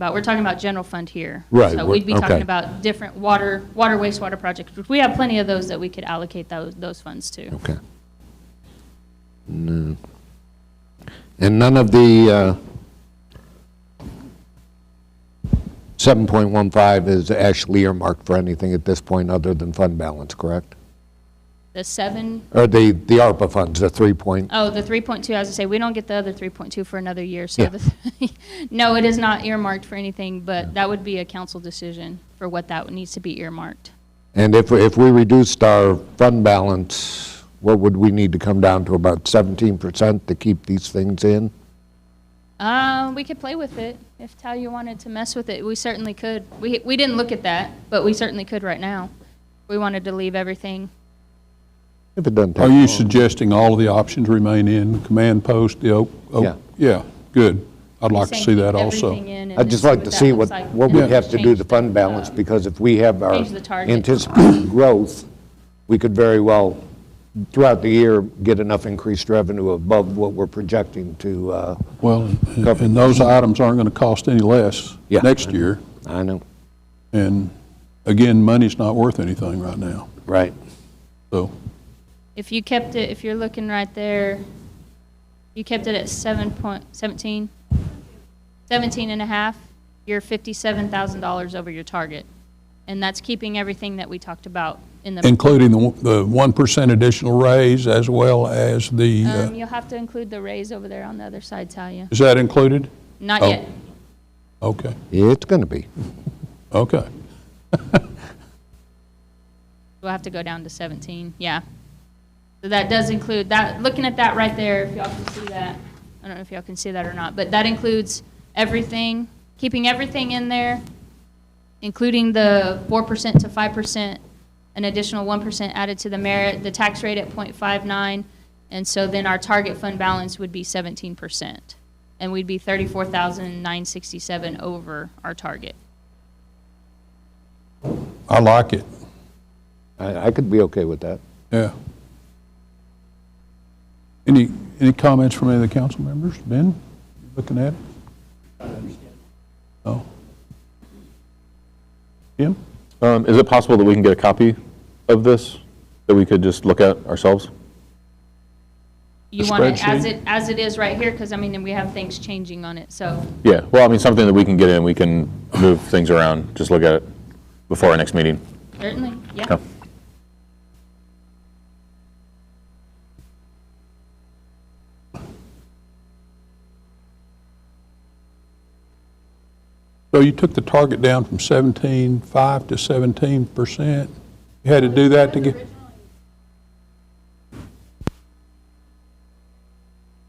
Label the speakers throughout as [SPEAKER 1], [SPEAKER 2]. [SPEAKER 1] about. We're talking about general fund here.
[SPEAKER 2] Right,
[SPEAKER 1] So
[SPEAKER 2] we're-
[SPEAKER 1] we'd be
[SPEAKER 2] okay.
[SPEAKER 1] talking about different water, water wastewater projects, which we have plenty of those that we could allocate those, those funds to.
[SPEAKER 2] Okay. No. And none of the uh, 7.15 is actually earmarked for anything at this point other than fund balance, correct?
[SPEAKER 1] The seven,
[SPEAKER 2] Or the, the ARPA funds, the 3 point,
[SPEAKER 1] oh, the three point two, as I say, we don't get the other three point two for another year, so
[SPEAKER 2] Yeah.
[SPEAKER 1] the, no, it is not earmarked for anything, but that would be a council decision for what that needs to be earmarked.
[SPEAKER 2] and if, if we reduced our fund balance, what would we need to come down to, about 17% to keep these things in?
[SPEAKER 1] Uh, we could play with it. If Talia wanted to mess with it, we certainly could. We, we didn't look at that, but we certainly could right now. We wanted to leave everything.
[SPEAKER 2] If it doesn't take
[SPEAKER 3] Are you
[SPEAKER 2] long.
[SPEAKER 3] suggesting all of the options remain in, command post, the oak? oak-
[SPEAKER 2] Yeah.
[SPEAKER 3] Yeah, good. I'd like to
[SPEAKER 1] saying
[SPEAKER 3] see
[SPEAKER 1] keep
[SPEAKER 3] that also.
[SPEAKER 1] everything in and
[SPEAKER 2] I'd
[SPEAKER 1] then
[SPEAKER 2] just like to
[SPEAKER 1] that
[SPEAKER 2] see what,
[SPEAKER 1] looks like,
[SPEAKER 2] what
[SPEAKER 1] and
[SPEAKER 2] we
[SPEAKER 1] then
[SPEAKER 2] have to do
[SPEAKER 1] change
[SPEAKER 2] to fund balance,
[SPEAKER 1] uh,
[SPEAKER 2] because if we have our
[SPEAKER 1] change the target.
[SPEAKER 2] anticipated growth, we could very well, throughout the year, get enough increased revenue above what we're projecting to, uh,
[SPEAKER 3] Well, and-
[SPEAKER 2] Cover.
[SPEAKER 3] and those items aren't going to cost any less
[SPEAKER 2] Yeah.
[SPEAKER 3] next year.
[SPEAKER 2] I know,
[SPEAKER 3] And again, money's not worth anything right now,
[SPEAKER 2] right?
[SPEAKER 3] so.
[SPEAKER 1] If you kept it, if you're looking right there, you kept it at seven point, seventeen? Seventeen and a half, you're fifty-seven thousand dollars over your target. And that's keeping everything that we talked about in the,
[SPEAKER 3] Including the one- the 1% additional raise as well as the, uh,
[SPEAKER 1] um, you'll have to include the raise over there on the other side, Talia.
[SPEAKER 3] is that included?
[SPEAKER 1] Not
[SPEAKER 3] Oh.
[SPEAKER 1] yet.
[SPEAKER 3] Okay,
[SPEAKER 2] It's going to be.
[SPEAKER 3] okay.
[SPEAKER 1] We'll have to go down to 17, yeah. So that does include, that, looking at that right there, if y'all can see that, I don't know if y'all can see that or not, but that includes everything, keeping everything in there, including the 4% to 5%, an additional 1% added to the merit, the tax rate at .59, and so then our target fund balance would be 17%. And we'd be 34,967 over our target.
[SPEAKER 3] I like it,
[SPEAKER 2] I, I could be okay with that.
[SPEAKER 3] yeah. Any, any comments from any of the council members? Ben, looking at it? Oh. Jim?
[SPEAKER 4] Um, Is it possible that we can get a copy of this, that we could just look at ourselves?
[SPEAKER 1] You
[SPEAKER 3] The
[SPEAKER 1] want it as
[SPEAKER 3] spreadsheet?
[SPEAKER 1] it, as it is right here, because I mean, we have things changing on it, so,
[SPEAKER 4] Yeah, well, I mean, something that we can get in, we can move things around, just look at it before our next meeting.
[SPEAKER 1] certainly, yeah.
[SPEAKER 4] Yeah.
[SPEAKER 3] So you took the target down from 17.5 to 17%? You had to do that to get?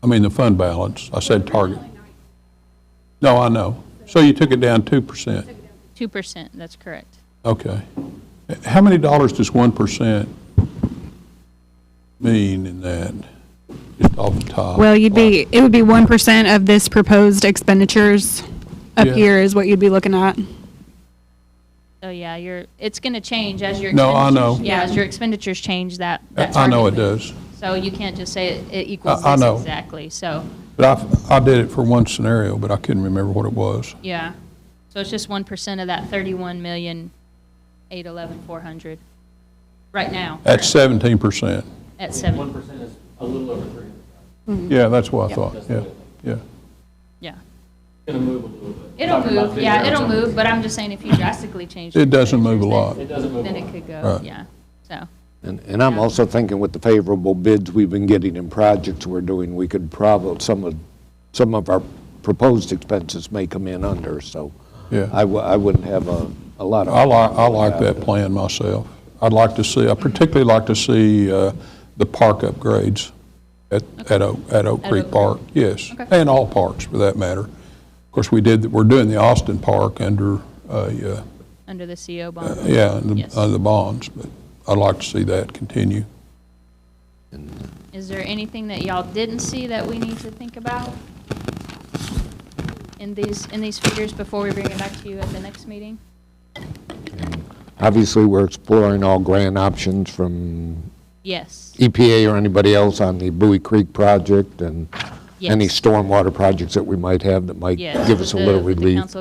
[SPEAKER 3] I mean, the fund balance, I said target. No, I know. So you took it down 2%?
[SPEAKER 1] Two percent, that's correct.
[SPEAKER 3] Okay. How many dollars does 1% mean in that? Just off the top?
[SPEAKER 5] Well, you'd be, it would be one percent of this proposed expenditures up
[SPEAKER 3] Yeah.
[SPEAKER 5] here is what you'd be looking at.
[SPEAKER 1] So, yeah, you're, it's gonna change as your.
[SPEAKER 3] No, I
[SPEAKER 1] expenditures-
[SPEAKER 3] know.
[SPEAKER 1] Yeah, as your expenditures change, that, that
[SPEAKER 3] I know it
[SPEAKER 1] target would-
[SPEAKER 3] does.
[SPEAKER 1] So you can't just say it- it equals
[SPEAKER 3] I- I
[SPEAKER 1] this
[SPEAKER 3] know.
[SPEAKER 1] exactly, so,
[SPEAKER 3] But I, I did it for one scenario, but I couldn't remember what it was.
[SPEAKER 1] yeah. So it's just one percent of that thirty-one million, eight eleven, four hundred, right now.
[SPEAKER 3] At seventeen percent.
[SPEAKER 1] At seven,
[SPEAKER 6] percent is a little over three hundred thousand.
[SPEAKER 3] Yeah, that's what I thought, yeah, yeah.
[SPEAKER 1] yeah.
[SPEAKER 6] It's gonna move a little bit.
[SPEAKER 1] It'll
[SPEAKER 6] Talking about
[SPEAKER 1] move,
[SPEAKER 6] big
[SPEAKER 1] yeah, it'll
[SPEAKER 6] numbers.
[SPEAKER 1] move, but I'm just saying if you drastically change.
[SPEAKER 3] It doesn't move a lot.
[SPEAKER 1] expenditures,
[SPEAKER 6] It doesn't move.
[SPEAKER 1] Then
[SPEAKER 6] a
[SPEAKER 1] then
[SPEAKER 6] lot.
[SPEAKER 1] it could go,
[SPEAKER 3] Right.
[SPEAKER 1] yeah, so.
[SPEAKER 2] And, and I'm
[SPEAKER 1] Yeah.
[SPEAKER 2] also thinking with the favorable bids we've been getting and projects we're doing, we could probably, some of, some of our proposed expenses may come in under, so.
[SPEAKER 3] Yeah.
[SPEAKER 2] I, w- I wouldn't have a, a lot of.
[SPEAKER 3] I like, I like that plan myself. I'd like to see, I particularly like to see uh, the park upgrades at, at Oak,
[SPEAKER 1] At
[SPEAKER 3] at Oak
[SPEAKER 1] Oak
[SPEAKER 3] Creek
[SPEAKER 1] Creek.
[SPEAKER 3] Park, yes.
[SPEAKER 1] Okay.
[SPEAKER 3] And all parks, for that matter. Of course, we did, we're doing the Austin Park under, a, uh,
[SPEAKER 1] under the CO bond.
[SPEAKER 2] Uh,
[SPEAKER 3] yeah, the-
[SPEAKER 1] Yes.
[SPEAKER 3] under the bonds, but I'd like to see that continue.
[SPEAKER 1] Is there anything that y'all didn't see that we need to think about in these, in these figures before we bring it back to you at the next meeting?
[SPEAKER 2] Obviously, we're exploring all grant options from
[SPEAKER 1] Yes,
[SPEAKER 2] EPA or anybody else on the Bowie Creek project and any
[SPEAKER 1] Yes.
[SPEAKER 2] stormwater projects that we might have that might
[SPEAKER 1] yes.
[SPEAKER 2] give us a
[SPEAKER 1] with
[SPEAKER 2] little
[SPEAKER 1] the- with the
[SPEAKER 2] relief.
[SPEAKER 1] council